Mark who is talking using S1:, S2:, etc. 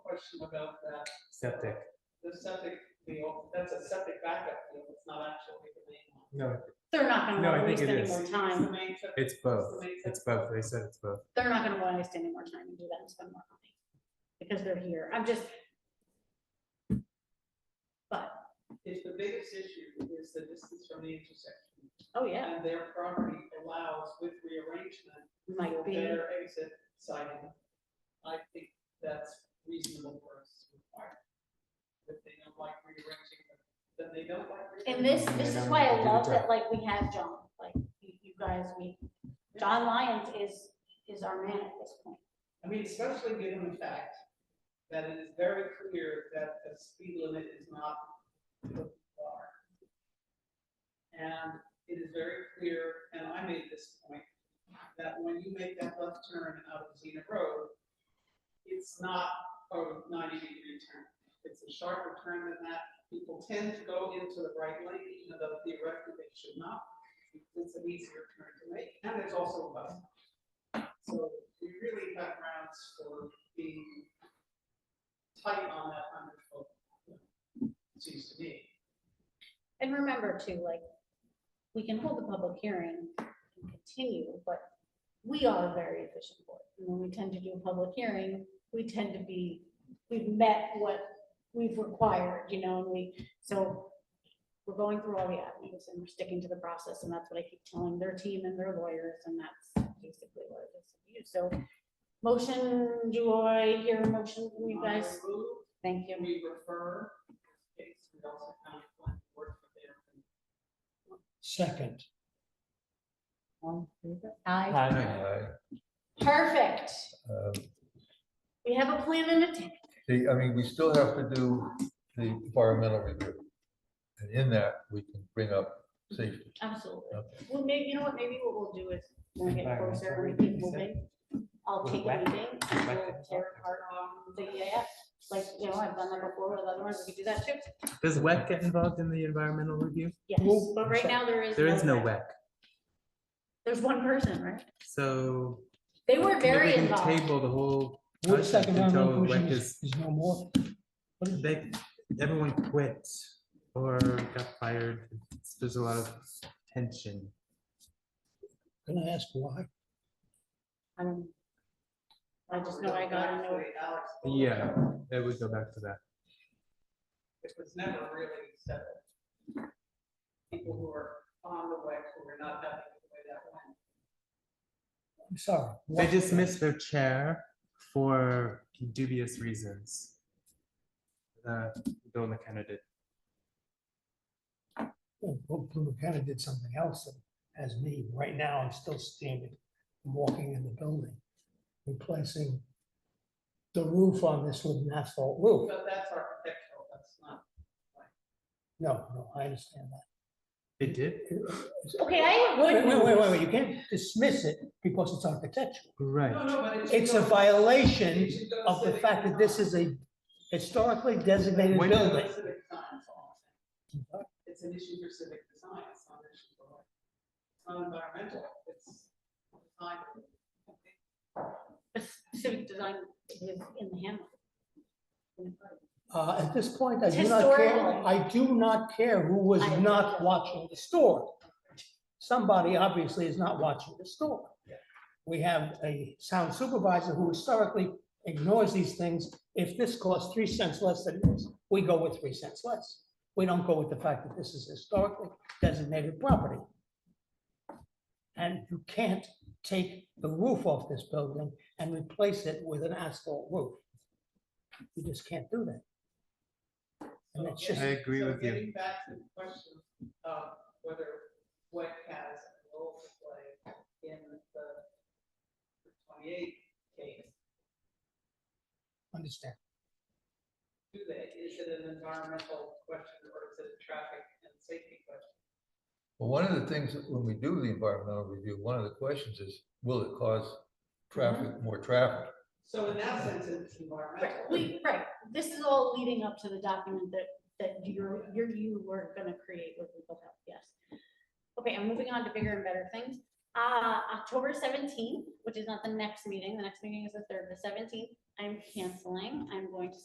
S1: question about that,
S2: septic.
S1: the septic field, that's a septic backup field, it's not actually the main one.
S2: No,
S3: They're not gonna
S2: No, I
S3: wanna
S2: think
S3: waste
S2: it
S3: any
S2: is.
S3: more
S1: It's the
S3: time.
S1: main septic-
S2: it's both. It's both. They said it's both.
S3: They're not gonna wanna waste any more time and do that and spend more money. Because they're here. I'm just. But,
S1: It's the biggest issue is the distance from the intersection.
S3: oh yeah,
S1: And their property allows with rearrangement
S3: might
S1: for
S3: be,
S1: better exit siding. I think that's reasonable for us to require. If they don't like rearranging, then they don't like.
S3: and this,
S2: Yeah,
S3: this
S2: no,
S3: is why
S2: do
S3: I
S2: the
S3: love
S2: job.
S3: that, like, we have John, like, you, you guys, we, John Lyons is, is our man at this point.
S1: I mean, especially given the fact that it is very clear that the speed limit is not the bar. And it is very clear, and I made this point, that when you make that left turn out of Xena Road, it's not a ninety degree turn. It's a sharper turn than that. People tend to go into the right lane, even though theoretically they should not. It's an easier turn to make, and there's also a bus. So we really have grounds for being tight on that hundred foot. Seems to me.
S3: And remember too, like, we can hold the public hearing and continue, but we are a very efficient board. And when we tend to do a public hearing, we tend to be, we've met what we've required, you know, and we, so we're going through all the avenues and we're sticking to the process, and that's what I keep telling their team and their lawyers, and that's basically what it is to you. So motion, do I hear a motion from you guys?
S1: I move
S3: Thank
S1: Can
S3: you.
S1: we refer? It's we also kind of want to work for them.
S4: Second.
S3: All in favor? Aye.
S2: Hi.
S3: Perfect.
S5: Uh,
S3: We have a plan and a team.
S5: The, I mean, we still have to do the environmental review. And in that, we can bring up safety.
S3: Absolutely.
S5: Okay.
S3: Well, maybe, you know what, maybe what we'll do is, when we get
S2: Environmental
S3: closer, we
S2: review,
S3: keep
S2: you said?
S3: moving. I'll
S2: With
S3: take a
S2: wet-
S3: meeting, and
S2: wet
S3: we'll
S2: things
S3: tear
S2: up.
S3: apart um, the EAF, like, you know, I've done that before with other ones, we could do that too.
S2: Does WEC get involved in the environmental review?
S3: Yes,
S4: Well,
S3: but
S4: I'm
S3: right
S4: sorry.
S3: now, there is.
S2: There is no E
S3: way.
S2: WEC,
S3: There's one person, right?
S2: so.
S3: They were
S2: I mean,
S3: very
S2: We can
S3: involved.
S2: table the whole.
S4: What's
S2: budget
S4: second round
S2: until
S4: conclusion
S2: WEC
S4: is,
S2: is-
S4: is no more? What is-
S2: They, everyone quit or got fired. It's- There's a lot of tension.
S4: Can I ask why?
S3: Um, I just know I got a note.
S1: Alex.
S2: Yeah, it would go back to that.
S1: It was never really settled. People who were on the way, who were not having the way that went.
S4: I'm sorry.
S2: They
S4: why-
S2: dismissed their chair for dubious reasons. Uh, Bill McKenna did.
S4: Oh, Well, Bill Blue kind of did something else that has me, right now, I'm still standing, I'm walking in the building, replacing the roof on this with an asphalt roof.
S1: But that's architectural, that's not.
S4: No, no, I understand that.
S2: They did?
S3: Okay, I
S4: Wait,
S3: would.
S4: wait, wait, wait, you can't dismiss it because it's architectural.
S1: No,
S2: Right.
S1: no, but it should
S4: It's a
S1: go-
S4: violation
S1: it should go
S4: of the
S1: civic
S4: fact that this
S1: design.
S4: is a historically designated
S2: When-
S4: building.
S1: Civic design is all I'm saying. It's an issue for civic design, it's not an issue for like, it's not environmental, it's design.
S3: Civic design is in the handbook.
S4: Uh, at this point, I
S3: It's
S4: do not care,
S3: historical.
S4: I do not care who was
S3: I-
S4: not watching the store. Somebody obviously is not watching the store. We have a sound supervisor who historically ignores these things. If this costs three cents less than this, we go with three cents less. We don't go with the fact that this is historically designated property. And you can't take the roof off this building and replace it with an asphalt roof. You just can't do that. And it's
S2: I
S4: just-
S2: agree
S1: So
S2: with you.
S1: Getting back to the question of whether WEC has a role to play in the twenty-eight case,
S4: Understand.
S1: do they, is it an environmental question or is it a traffic and safety question?
S5: But one of the things, that when we do the environmental review, one of the questions is, will it cause traffic, more traffic?
S1: So in that sense, it's environmental.
S3: Right, we, right, this is all leading up to the document that, that you're, you're, you were gonna create with legal help, yes. Okay, I'm moving on to bigger and better things. Uh, October seventeenth, which is not the next meeting, the next meeting is the third, the seventeenth, I'm canceling, I'm going to